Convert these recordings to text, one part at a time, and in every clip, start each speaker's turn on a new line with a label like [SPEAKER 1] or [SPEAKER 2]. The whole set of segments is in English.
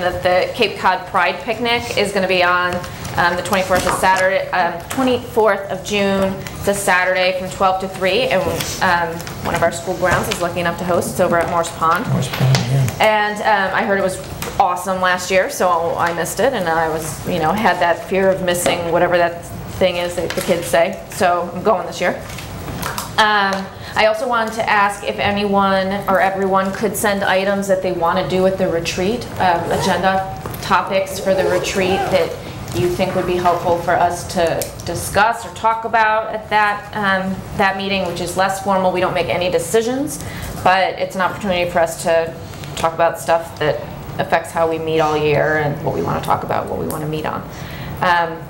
[SPEAKER 1] that the Cape Cod Pride Picnic is going to be on um, the 24th of Saturday, um, 24th of June, it's a Saturday from 12 to 3, and um, one of our school grounds is lucky enough to host, it's over at Morse Pond. And um, I heard it was awesome last year, so I missed it, and I was, you know, had that fear of missing whatever that thing is that the kids say, so I'm going this year. Um, I also wanted to ask if anyone or everyone could send items that they want to do at the retreat, um, agenda topics for the retreat that you think would be helpful for us to discuss or talk about at that, um, that meeting, which is less formal. We don't make any decisions, but it's an opportunity for us to talk about stuff that affects how we meet all year and what we want to talk about, what we want to meet on. Um,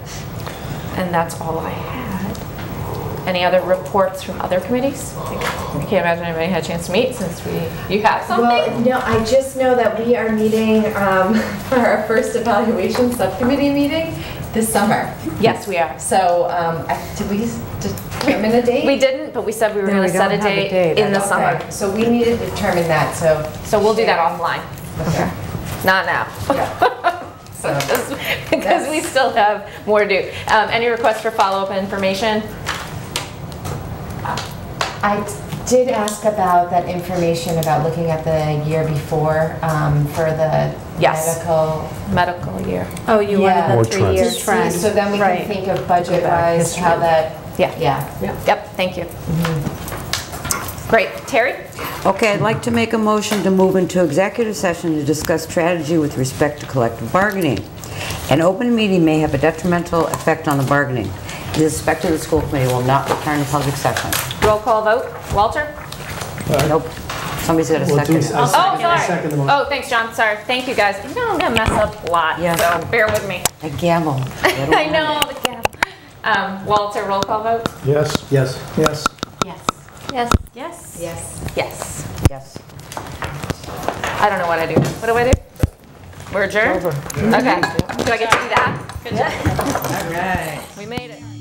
[SPEAKER 1] And that's all I had. Any other reports from other committees? I can't imagine anybody had a chance to meet since we, you have something?
[SPEAKER 2] Well, no, I just know that we are meeting um, for our first evaluation subcommittee meeting this summer.
[SPEAKER 1] Yes, we are.
[SPEAKER 2] So um, I- did we s- determine a date?
[SPEAKER 1] We didn't, but we said we were
[SPEAKER 3] No,
[SPEAKER 1] gonna
[SPEAKER 3] we
[SPEAKER 1] set a
[SPEAKER 3] don't have a
[SPEAKER 1] date
[SPEAKER 3] date.
[SPEAKER 1] in the
[SPEAKER 2] Okay,
[SPEAKER 1] summer.
[SPEAKER 2] So we need to determine that, so.
[SPEAKER 1] So we'll do that offline,
[SPEAKER 2] Okay.
[SPEAKER 1] not now.
[SPEAKER 2] Yeah. So-
[SPEAKER 1] Because we
[SPEAKER 2] That's-
[SPEAKER 1] still have more to do. Um, Any requests for follow-up information?
[SPEAKER 2] I did ask about that information about looking at the year before um, for the
[SPEAKER 1] Yes.
[SPEAKER 2] medical.
[SPEAKER 1] Medical year.
[SPEAKER 3] Oh, you
[SPEAKER 2] Yeah.
[SPEAKER 3] wanted
[SPEAKER 4] Or
[SPEAKER 3] the three-year
[SPEAKER 4] trends.
[SPEAKER 2] See,
[SPEAKER 3] trend.
[SPEAKER 2] So then we can
[SPEAKER 3] Right.
[SPEAKER 2] think of budget-wise, how that,
[SPEAKER 1] Yeah.
[SPEAKER 2] yeah.
[SPEAKER 1] Yep, thank you. Great. Terry?
[SPEAKER 5] Okay, I'd like to make a motion to move into executive session to discuss strategy with respect to collective bargaining. An open meeting may have a detrimental effect on the bargaining. The respect of the school committee will not return to public session.
[SPEAKER 1] Roll call vote. Walter?
[SPEAKER 5] Nope. Somebody's got a
[SPEAKER 4] Well, do-
[SPEAKER 5] second.
[SPEAKER 4] I
[SPEAKER 1] Oh, sorry.
[SPEAKER 4] second- I second the motion.
[SPEAKER 1] Oh, thanks, John. Sorry. Thank you, guys. You know, I'm gonna mess up a lot,
[SPEAKER 5] Yeah.
[SPEAKER 1] so bear with me.
[SPEAKER 5] I gamble.
[SPEAKER 1] I know, the gap. Um, Walter, roll call vote?
[SPEAKER 4] Yes. Yes. Yes.
[SPEAKER 1] Yes. Yes. Yes?
[SPEAKER 2] Yes.
[SPEAKER 1] Yes.
[SPEAKER 5] Yes.
[SPEAKER 1] I don't know what I do. What do I do? We're adjourned? Okay. Do I get to do that? Good job. All right. We made it.